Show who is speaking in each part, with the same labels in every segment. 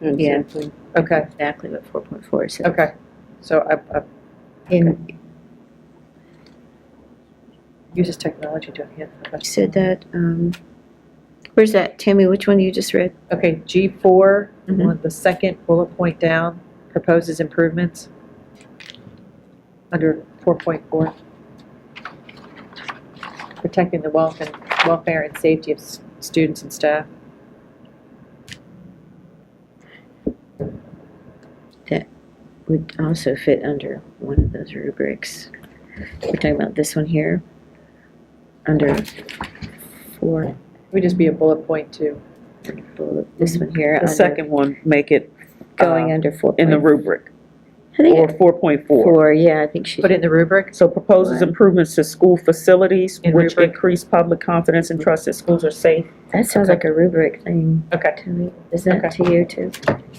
Speaker 1: Yeah.
Speaker 2: Exactly.
Speaker 1: Okay,
Speaker 2: Exactly what 4.4 says.
Speaker 1: okay. So I, I
Speaker 2: And
Speaker 1: uses technology to enhance.
Speaker 2: you said that, um, where's that, Tammy, which one you just read?
Speaker 1: Okay, G four,
Speaker 2: Mhm.
Speaker 1: on the second bullet point down, proposes improvements under four point four. Protecting the wealth and welfare and safety of s- students and staff.
Speaker 2: Would also fit under one of those rubrics. We're talking about this one here, under four,
Speaker 1: It Would just be a bullet point too.
Speaker 2: bullet- this one here.
Speaker 3: The
Speaker 2: under-
Speaker 3: second one, make it
Speaker 2: Going
Speaker 3: uh,
Speaker 2: under four.
Speaker 3: in the
Speaker 2: point-
Speaker 3: rubric,
Speaker 2: I think
Speaker 3: or
Speaker 2: it-
Speaker 3: 4.4.
Speaker 2: Four, yeah, I think she,
Speaker 1: Put it in the rubric,
Speaker 3: So proposes
Speaker 2: Right.
Speaker 3: improvements to school facilities
Speaker 1: In
Speaker 3: which
Speaker 1: rubric.
Speaker 3: increase public confidence and trust that schools are safe.
Speaker 2: that sounds like a rubric thing
Speaker 1: okay.
Speaker 2: to me. Is that
Speaker 3: Okay.
Speaker 2: to you too?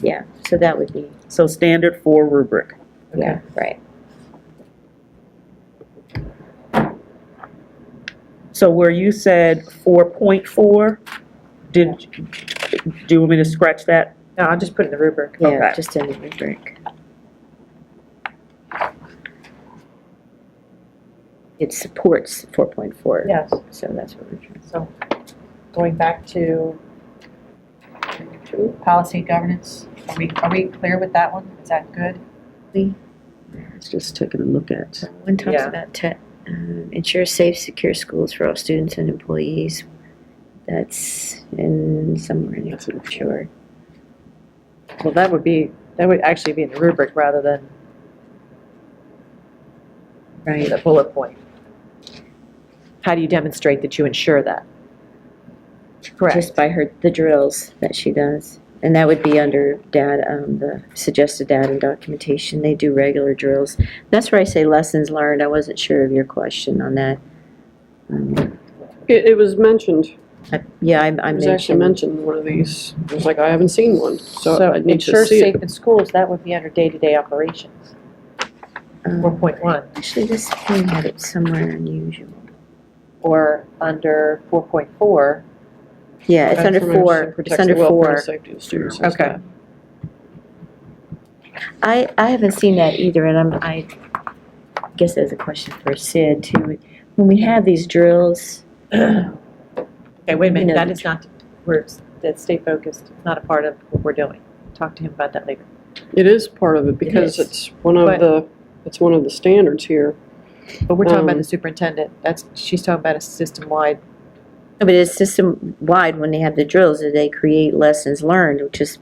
Speaker 2: Yeah, so that would be,
Speaker 3: So standard four rubric.
Speaker 2: yeah, right.
Speaker 3: So where you said 4.4, did, do you want me to scratch that?
Speaker 1: No, I'll just put it in the rubric.
Speaker 2: Yeah,
Speaker 3: Okay.
Speaker 2: just in the rubric. It supports 4.4.
Speaker 1: Yes.
Speaker 2: So that's what we're trying.
Speaker 1: So going back to policy governance, are we, are we clear with that one? Is that good?
Speaker 3: It's just taking a look at.
Speaker 2: One talks
Speaker 1: Yeah.
Speaker 2: about te- um, ensure safe, secure schools for all students and employees. That's in somewhere in here, sure.
Speaker 1: Well, that would be, that would actually be in the rubric rather than
Speaker 2: Right,
Speaker 1: the bullet point. How do you demonstrate that you ensure that?
Speaker 2: just by her, the drills that she does. And that would be under data, um, the suggested data and documentation. They do regular drills. That's where I say lessons learned. I wasn't sure of your question on that. Um,
Speaker 4: It, it was mentioned,
Speaker 2: I- Yeah, I, I
Speaker 4: it was actually
Speaker 2: mentioned.
Speaker 4: mentioned in one of these, I was like, I haven't seen one, so
Speaker 1: So
Speaker 4: I need to
Speaker 1: ensure
Speaker 4: see
Speaker 1: safe
Speaker 4: it.
Speaker 1: in schools, that would be under day-to-day operations,
Speaker 2: um,
Speaker 1: 4.1,
Speaker 2: Actually, this thing had it somewhere unusual.
Speaker 1: or under 4.4.
Speaker 2: Yeah, it's under
Speaker 4: Information
Speaker 2: four,
Speaker 4: protects
Speaker 2: it's
Speaker 4: the
Speaker 2: under
Speaker 4: welfare and
Speaker 2: four.
Speaker 4: Safety of students.
Speaker 1: Okay.
Speaker 2: I, I haven't seen that either, and I'm, I guess that's a question for Sid too. When we have these drills,
Speaker 1: Okay, wait a
Speaker 2: You know,
Speaker 1: minute, that
Speaker 2: the
Speaker 1: is not, we're, that's stay focused, it's not a part of what we're doing. Talk to him about that later.
Speaker 4: It is part of it because
Speaker 2: is.
Speaker 4: it's one of
Speaker 1: But-
Speaker 4: the, it's one of the standards here.
Speaker 1: But we're talking about
Speaker 4: Um,
Speaker 1: the superintendent, that's, she's talking about a system-wide,
Speaker 2: I mean, it's system-wide, when they have the drills, that they create lessons learned, which is,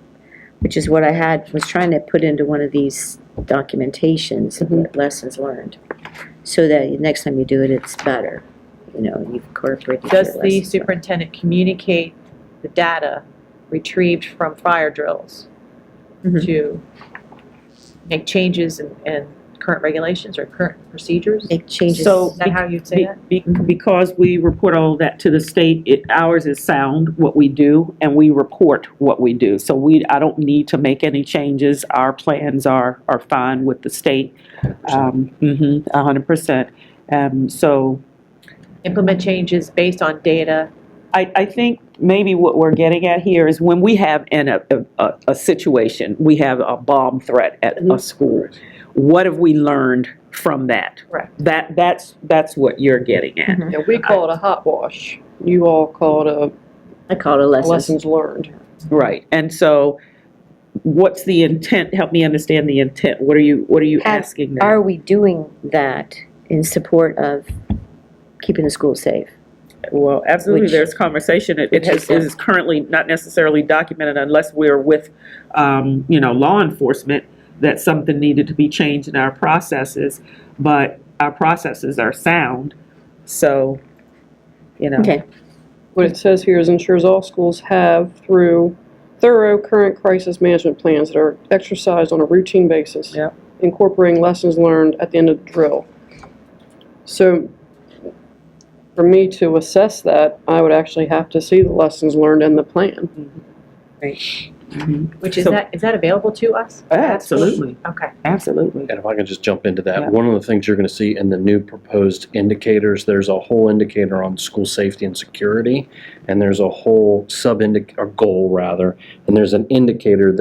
Speaker 2: which is what I had, was trying to put into one of these documentations, of what lessons learned. So that next time you do it, it's better, you know, you've incorporated. your
Speaker 1: does the
Speaker 2: lessons learned.
Speaker 1: superintendent communicate the data retrieved from fire drills
Speaker 2: Mhm.
Speaker 1: to make changes in, in current regulations or current procedures? Is
Speaker 2: Make changes.
Speaker 3: So-
Speaker 1: that how you'd say that?
Speaker 3: Be- be- Because we report all that to the state, it, ours is sound, what we do, and we report what we do. So we, I don't need to make any changes, our plans are, are fine with the state. Um, mhm, a hundred percent. Um, so
Speaker 1: Implement changes based on data,
Speaker 3: I, I think maybe what we're getting at here is when we have in a, a, a situation, we have a bomb threat at a
Speaker 4: Mhm.
Speaker 3: school, what have we learned from that?
Speaker 1: Correct.
Speaker 3: That, that's, that's what you're getting at.
Speaker 4: Yeah, we call it a hot wash, you all call it
Speaker 2: I call it a
Speaker 4: a lessons learned.
Speaker 3: Right, and so what's the intent, help me understand the intent, what are you, what are you
Speaker 2: Have-
Speaker 3: asking? them?
Speaker 2: Are we doing that in support of keeping the school safe?
Speaker 3: Well, absolutely,
Speaker 2: Which-
Speaker 3: there's conversation, it,
Speaker 2: which
Speaker 3: it
Speaker 2: is
Speaker 3: has,
Speaker 2: that?
Speaker 3: it is currently not necessarily documented unless we're with, um, you know, law enforcement, that something needed to be changed in our processes, but our processes are sound, so, you know.
Speaker 2: Okay,
Speaker 4: What it says here is ensures all schools have through thorough current crisis management plans that are exercised on a routine basis.
Speaker 3: Yep.
Speaker 4: Incorporating lessons learned at the end of the drill. So for me to assess that, I would actually have to see the lessons learned and the plan.
Speaker 3: Mhm.
Speaker 1: which is
Speaker 3: So-
Speaker 1: that, is that available to us?
Speaker 3: Absolutely,
Speaker 1: Okay,
Speaker 3: absolutely.
Speaker 5: And if I could just jump into
Speaker 3: Yeah.
Speaker 5: that, one of the things you're going to see in the new proposed indicators, there's a whole indicator on school safety and security, and there's a whole sub-indic, or goal rather, and there's an indicator